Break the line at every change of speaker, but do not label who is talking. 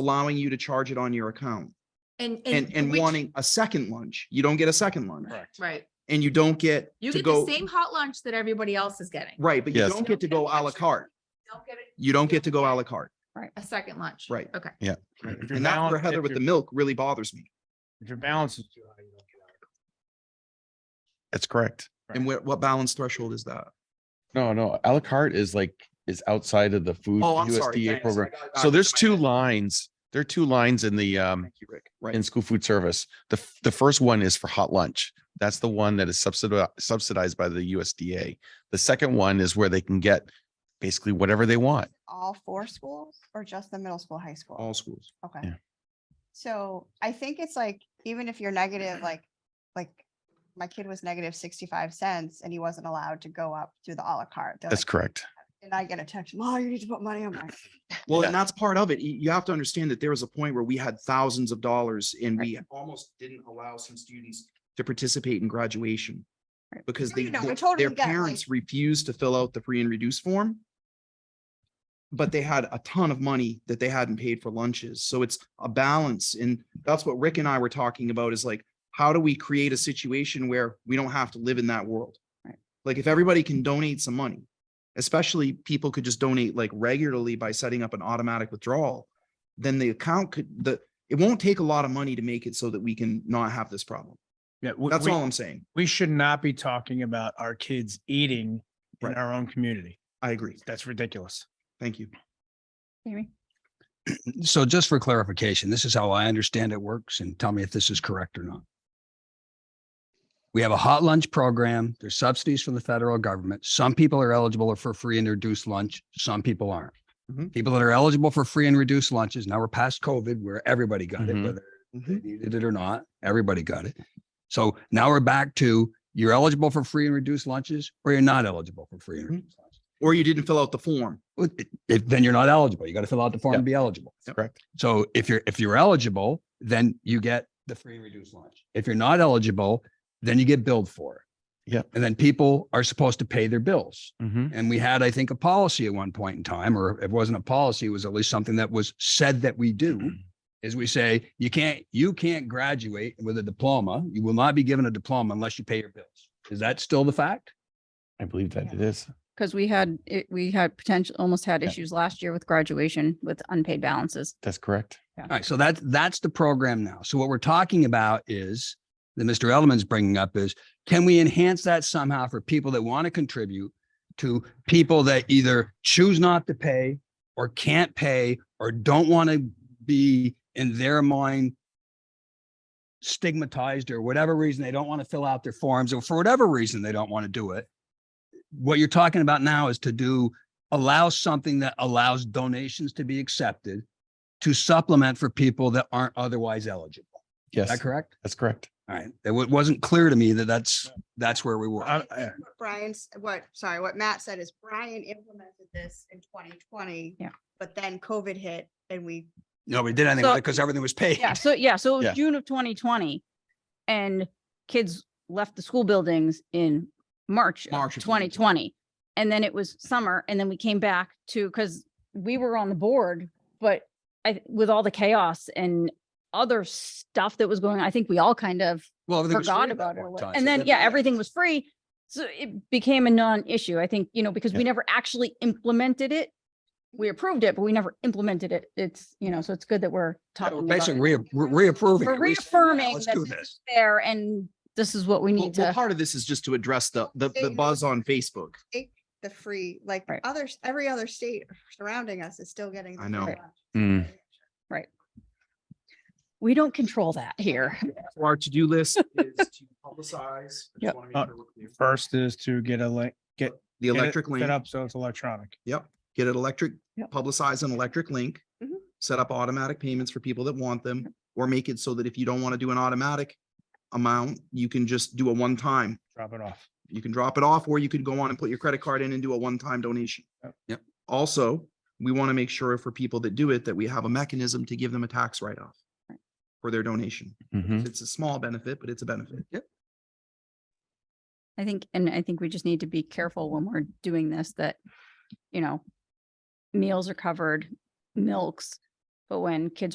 allowing you to charge it on your account
And,
and, and
which-
wanting a second lunch. You don't get a second lunch
Correct.
Right.
and you don't get
You
to
get the
go,
same hot lunch that everybody else is getting.
right, but you
Yes.
don't get to go à la carte.
Don't get it-
You don't get to go à la carte.
A second lunch.
Right.
Okay.
Right. If your
And that's where
balance-
Heather
if
with the
your-
milk really bothers me.
If your balance is too high, you don't get out.
That's correct.
And what, what balance threshold is that?
No, no, à la carte is like, is outside of the food
Oh, I'm sorry.
USDA
thanks, I
program.
got
Uh,
it
So
backwards
there's
in my
two
head.
lines, there are two lines in the, um,
Thank you, Rick.
in
Right.
school food service. The, f- the first one is for hot lunch. That's the one that is subsidized, subsidized by the USDA. The second one is where they can get basically whatever they want.
all four schools or just the middle school, high school?
All schools.
Okay.
yeah.
So I think it's like, even if you're negative, like, like my kid was negative sixty-five cents and he wasn't allowed to go up through the à la carte. They're
That's
like-
correct.
And I get a text, Ma, you need to put money on my.
Well,
Yeah.
and that's part of it. You, you have to understand that there was a point where we had thousands of dollars and we almost didn't allow some students to participate in graduation.
Right.
Because
No,
they,
no, no, I
their-
totally
their
get, like-
parents refused to fill out the free and reduced form. But they had a ton of money that they hadn't paid for lunches. So it's a balance. And that's what Rick and I were talking about is like, how do we create a situation where we don't have to live in that world?
Right.
Like if everybody can donate some money, especially people could just donate like regularly by setting up an automatic withdrawal, then the account could, the, it won't take a lot of money to make it so that we can not have this problem.
Yeah, we-
That's
we-
all I'm saying.
We should not be talking about our kids eating in
Right.
our own community.
I agree.
That's ridiculous.
Thank you.
Amy?
So just for clarification, this is how I understand it works and tell me if this is correct or not. We have a hot lunch program. There's subsidies from the federal government. Some people are eligible for free and reduced lunch. Some people aren't.
Mhm.
People that are eligible for free and reduced lunches, now we're past COVID where everybody got it,
Mhm.
whether they needed it or not, everybody got it. So now we're back to you're eligible for free and reduced lunches or you're not eligible for free and
Mhm.
reduced lunches.
Or you didn't fill out the form.
Well, i- If, then you're not eligible. You got to fill out the form to be eligible.
Yep.
Correct.
So if you're, if you're eligible, then you get the free and reduced lunch. If you're not eligible, then you get billed for it.
Yep.
And then people are supposed to pay their bills.
Mhm.
And we had, I think, a policy at one point in time, or if it wasn't a policy, it was at least something that was said that we do.
Mm-hmm.
Is we say, you can't, you can't graduate with a diploma. You will not be given a diploma unless you pay your bills. Is that still the fact?
I believe that
Yeah.
it is.
Because we had, it- we had potential, almost had
Yeah.
issues last year with graduation with unpaid balances.
That's correct.
All right, so that's that's the program now. So what we're talking about is that Mr. Edelman's bringing up is can we enhance that somehow for people that want to contribute to people that either choose not to pay or can't pay or don't want to be in their mind stigmatized or whatever reason they don't want to fill out their forms or for whatever reason they don't want to do it. What you're talking about now is to do allow something that allows donations to be accepted to supplement for people that aren't otherwise eligible. Is that
Yes,
correct?
that's correct.
All right. It wa- wasn't clear to me that that's, that's where we were.
Uh,
I- I-
What Brian's, what, sorry, what Matt said is Brian implemented this in twenty twenty.
Yeah.
But then COVID hit and we,
Nobody did anything
So-
because everything was paid.
Yeah, Uh, so, yeah, so it
Yeah.
was June of twenty twenty. And kids left the school buildings in March of
March of
twenty
2020.
twenty. And then it was summer and then we came back to, because we were on the board, but I, with all the chaos and other stuff that was going, on, I think we all kind of
Well, everything was free
forgot
at that
about it.
point
or
in
what-
time, so
And then,
it
yeah,
didn't matter.
everything was free. So it became a non-issue, I think, you know, because we
Yeah.
never actually implemented it. We approved it, but we never implemented it. It's, you know, so it's good that
Yeah,
we're
we're
talking about
Basically
it.
rea- re- reapproving.
We're
it. We said, "Yeah,
reaffirming
Let's
that
do
this is
this.
There and this is what we
Well,
need
well,
to,
part of this is just to address the, the, the buzz on Facebook.
take the free, like
Right.
others, every other state surrounding us is still getting. the
I
free
know.
lunch.
Mm.
we don't control that here.
So Our to-do list is to publicize. I just
Yep.
wanna make
Uh,
sure we're clear.
First is to get a link, get.
The
get it
electric link,
Set up so it's electronic.
get an electric,
Yep.
publicize an electric link.
Mhm.
Set up automatic payments for people that want them, or make it so that if you don't want to do an automatic amount, you can just do a one-time.
Drop it off.
You can drop it off, or you could go on and put your credit card in and do a one-time donation.
Yep.
Yep.
Also, we want to make sure for people that do it, that we have a mechanism to give them a tax write-off for their donation.
Mhm.
It's a small benefit, but it's a benefit.
I think, and I think we just need to be careful when we're doing this that, you know, meals are covered, milks, But when kids are.